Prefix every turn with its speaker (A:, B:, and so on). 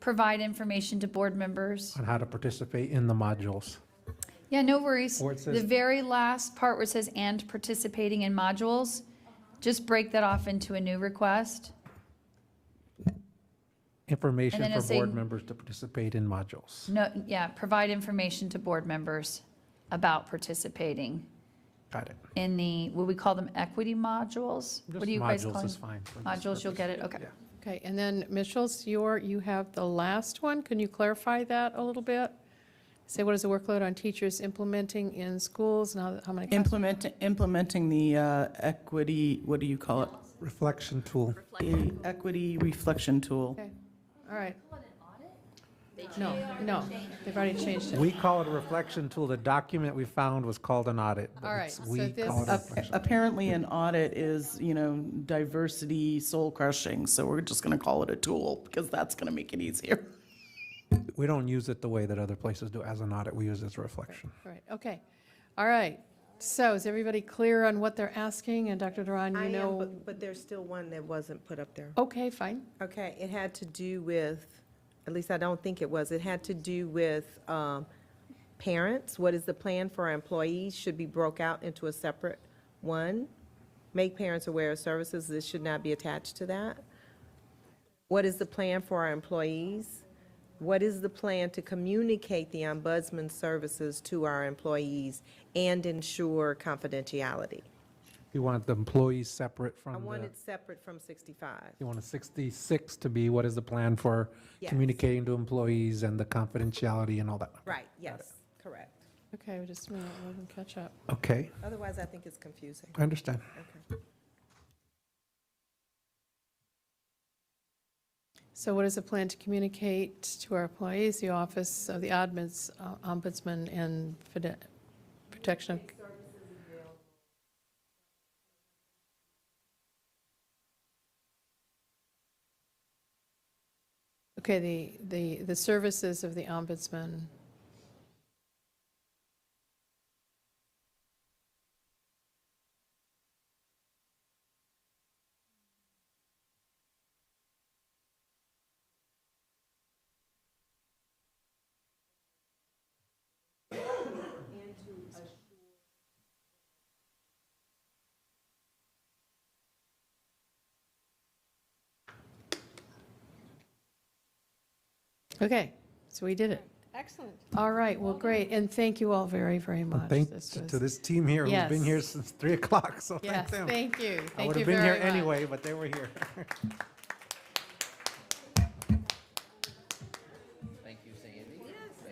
A: provide information to board members.
B: on how to participate in the modules.
A: Yeah, no worries.
B: Or it
A: The
B: says-
A: very last part where it says "and participating in modules," just break that off into a new request. And then
B: Information
A: it's
B: for board
A: saying-
B: members to participate in modules.
A: No, yeah, provide information to board members about participating
B: Got it.
A: in the, what we call them equity modules? What
B: Just
A: do you guys call
B: Modules is
A: them?
B: fine. for this
A: Modules, you'll
B: purpose.
A: get it, okay.
B: Yeah.
C: Okay, and then, Michels, your, you have the last one. Can you clarify that a little bit? Say, what is the workload on teachers implementing in schools, and how, how many? classrooms?
D: Implementing, implementing the uh, equity, what do you call it?
B: Reflection tool.
D: The equity reflection tool.
C: Okay, all right. No, no, they've already changed it.
B: We call it a reflection tool. The document we found was called an audit. but
C: All right,
B: it's-
C: so
B: We
C: this-
B: call it a
C: Uh,
B: reflection.
D: Apparently, an audit is, you know, diversity soul crushing, so we're just going to call it a tool because that's going to make it easier.
B: We don't use it the way that other places do as an audit. We use it as a reflection.
C: All right, okay. All right. So is everybody clear on what they're asking? And Dr. Duran,
E: I
C: you
E: am,
C: know,
E: but, but there's still one that wasn't put up there.
C: okay, fine.
E: Okay, it had to do with, at least I don't think it was, it had to do with, um, parents. What is the plan for our employees? Should be broke out into a separate one. Make parents aware of services. This should not be attached to that. What is the plan for our employees? What is the plan to communicate the ombudsman services to our employees and ensure confidentiality?
B: You want the employees separate
E: I
B: from
E: want
B: the,
E: it separate from sixty-five.
B: you want a 66 to be what is the plan for
E: Yes.
B: communicating to employees and the confidentiality and all that.
E: Right, yes, correct.
C: Okay, we just, we can catch up.
B: Okay,
E: Otherwise, I think it's confusing.
B: I understand.
E: Okay.
C: So what is the plan to communicate to our employees, the Office of the Admins, uh, Ombudsman, and Fide- Protection of Okay, the, the, the services of the ombudsman. Okay, so we did it.
F: Excellent.
C: All right, well, great, and thank you all very, very much.
B: Thanks
C: This was-
B: to this team here who's been
C: Yes.
B: here since 3 o'clock, so thank
C: Yes,
B: them.
C: thank you,
B: I
C: thank
B: would
C: you
B: have been here
C: very much.
B: anyway, but they were here.